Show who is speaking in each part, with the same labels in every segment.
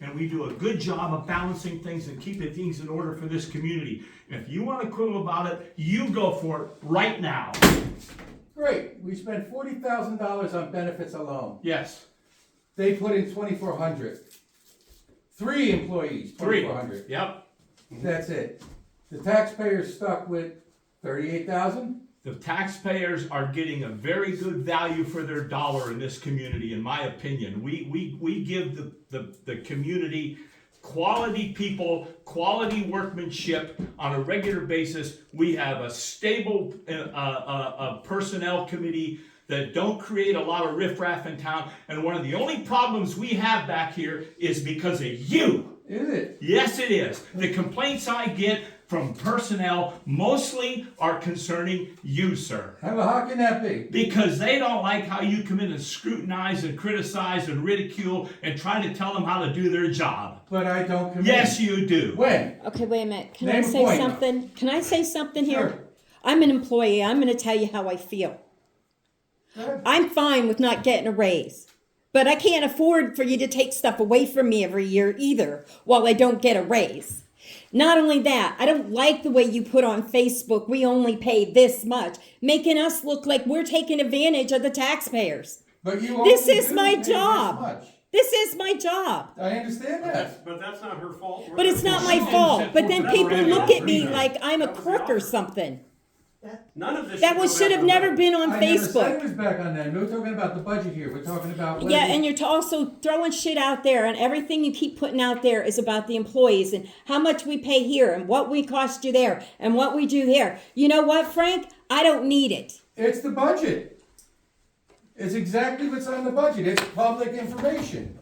Speaker 1: and we do a good job of balancing things and keeping things in order for this community. And if you wanna quibble about it, you go for it right now.
Speaker 2: Great, we spent forty thousand dollars on benefits alone.
Speaker 1: Yes,
Speaker 2: They put in twenty-four hundred. Three employees,
Speaker 1: three, Mm-hmm.
Speaker 2: twenty-four hundred.
Speaker 1: yep.
Speaker 2: That's it. The taxpayer's stuck with thirty-eight thousand?
Speaker 1: The taxpayers are getting a very good value for their dollar in this community, in my opinion. We, we, we give the, the, the community quality people, quality workmanship on a regular basis. We have a stable, uh, uh, uh, personnel committee that don't create a lot of riffraff in town. And one of the only problems we have back here is because of you.
Speaker 2: Is it?
Speaker 1: Yes, it is. The complaints I get from personnel mostly are concerning you, sir.
Speaker 2: How, how can that be?
Speaker 1: Because they don't like how you come in and scrutinize and criticize and ridicule and try to tell them how to do their job.
Speaker 2: But I don't commit.
Speaker 1: Yes, you do.
Speaker 2: When?
Speaker 3: Okay, wait a minute. Can I
Speaker 2: Name a
Speaker 3: say
Speaker 2: point.
Speaker 3: something? Can I say something here?
Speaker 2: Sure.
Speaker 3: I'm an employee. I'm going to tell you how I feel. I'm fine with not getting a raise, but I can't afford for you to take stuff away from me every year either while I don't get a raise. Not only that, I don't like the way you put on Facebook, we only pay this much, making us look like we're taking advantage of the taxpayers.
Speaker 2: But you.
Speaker 3: This
Speaker 2: only
Speaker 3: is
Speaker 2: do
Speaker 3: my
Speaker 2: pay this
Speaker 3: job.
Speaker 2: much.
Speaker 3: This is my job.
Speaker 2: I understand
Speaker 4: That's,
Speaker 2: that.
Speaker 4: but that's not her fault.
Speaker 3: But it's not my
Speaker 1: Well, she
Speaker 3: fault.
Speaker 1: didn't
Speaker 3: But
Speaker 1: say-
Speaker 3: then people look at me
Speaker 4: Well,
Speaker 3: like I'm a
Speaker 4: that was the
Speaker 3: crook or
Speaker 4: offer.
Speaker 3: something.
Speaker 4: None of this.
Speaker 3: That
Speaker 4: go
Speaker 3: was should
Speaker 4: back
Speaker 3: have
Speaker 4: to
Speaker 3: never
Speaker 4: her.
Speaker 3: been on
Speaker 2: I never said it
Speaker 3: Facebook.
Speaker 2: was back on that. We're talking about the budget here. We're talking about. whether-
Speaker 3: Yeah, and you're t- also throwing shit out there, and everything you keep putting out there is about the employees and how much we pay here, and what we cost you there, and what we do there. You know what, Frank? I don't need it.
Speaker 2: It's the budget. It's exactly what's on the budget. It's public information.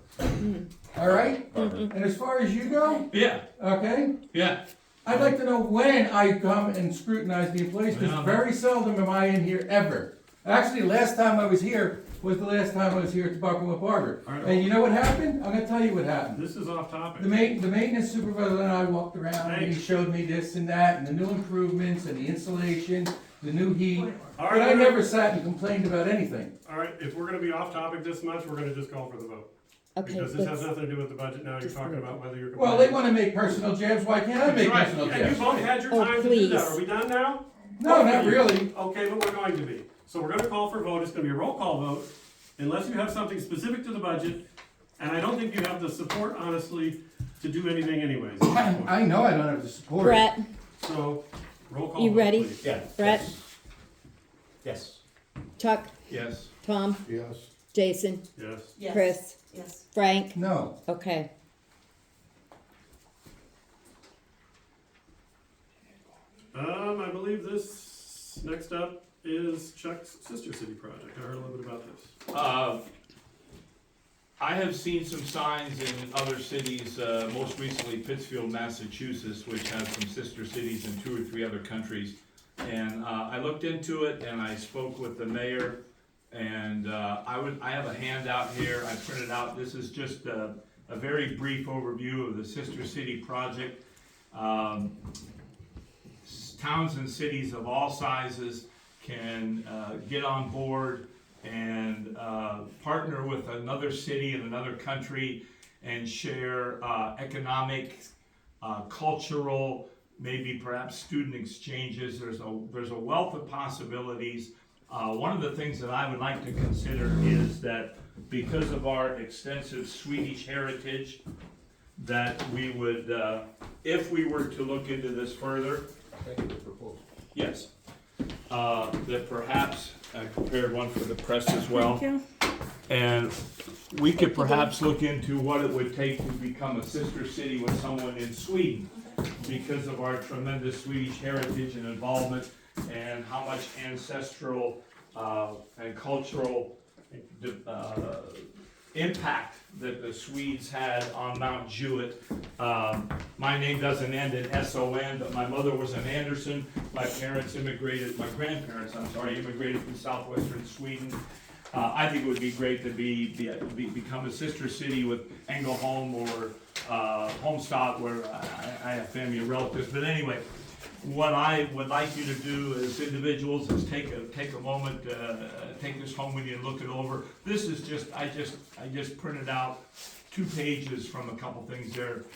Speaker 2: All right? And as far as you go,
Speaker 1: Yeah,
Speaker 2: okay?
Speaker 1: yeah.
Speaker 2: I'd like to know when I come and scrutinize the employees,
Speaker 1: Yeah.
Speaker 2: because very seldom am I in here ever. Actually, last time I was here was the last time I was here at Tobacco Barber.
Speaker 4: All right.
Speaker 2: And you know what happened? I'm gonna tell you what happened.
Speaker 4: This is off topic.
Speaker 2: The main, the maintenance supervisor and I walked around and he
Speaker 4: Thanks.
Speaker 2: showed me this and that and the new improvements and the insulation, the new heat.
Speaker 4: All
Speaker 2: But I
Speaker 4: right.
Speaker 2: never sat and complained about anything.
Speaker 4: All right, if we're gonna be off topic this much, we're gonna just call for the vote.
Speaker 3: Okay,
Speaker 4: Because this has
Speaker 3: let's,
Speaker 4: nothing to do with the budget now. You're
Speaker 3: Just
Speaker 4: talking
Speaker 3: leave.
Speaker 4: about whether you're.
Speaker 2: Well, they
Speaker 4: compliant.
Speaker 2: wanna make personal jabs, why can't I make
Speaker 4: Right,
Speaker 2: personal
Speaker 4: and you
Speaker 2: jabs?
Speaker 4: both had your
Speaker 3: Oh,
Speaker 4: time to do that.
Speaker 3: please.
Speaker 4: Are we done now?
Speaker 2: No, not really.
Speaker 4: Okay, but we're going to be. So we're gonna call for vote. It's gonna be a roll call vote unless you have something specific to the budget. And I don't think you have the support honestly to do anything anyways. at this point.
Speaker 2: I know I don't have the support.
Speaker 3: Brett,
Speaker 4: So, roll call
Speaker 3: You
Speaker 4: vote,
Speaker 3: ready?
Speaker 4: please.
Speaker 5: Yeah.
Speaker 3: Brett,
Speaker 5: Yes.
Speaker 3: Chuck,
Speaker 1: Yes.
Speaker 3: Tom,
Speaker 5: Yes.
Speaker 3: Jason,
Speaker 4: Yes.
Speaker 6: Yes.
Speaker 3: Chris,
Speaker 6: Yes.
Speaker 3: Frank.
Speaker 2: No,
Speaker 3: Okay.
Speaker 4: Um, I believe this, next up is Chuck's Sister City project. I heard a little bit about this.
Speaker 1: Uh, I have seen some signs in other cities, uh, most recently Pittsfield, Massachusetts, which has some sister cities in two or three other countries. And uh, I looked into it and I spoke with the mayor. And uh, I would, I have a handout here, I printed out, this is just a, a very brief overview of the sister city project. Um, s- Towns and cities of all sizes can uh, get on board and uh, partner with another city in another country and share uh, economic, uh, cultural, maybe perhaps student exchanges. There's a there's a wealth of possibilities. Uh, one of the things that I would like to consider is that because of our extensive Swedish heritage, that we would, uh, if we were to look into this further, yes, uh, that perhaps, I prepared one for the press as well. And we could perhaps look into what it would take to become a sister city with someone in Sweden because of our tremendous Swedish heritage and involvement and how much ancestral uh, and cultural uh, impact that the Swedes had on Mount Jewett. Um, My name doesn't end in S-O-N, but my mother was an Anderson. My parents immigrated, my grandparents, I'm sorry, immigrated from southwestern Sweden. Uh, I think it would be great to be, be, be- become a sister city with Engelholm or, uh, Homestad where I, I have family and relatives, but anyway. What I would like you to do as individuals is take a, take a moment, uh, take this home with you and look it over. This is just, I just, I just printed out two pages from a couple things there.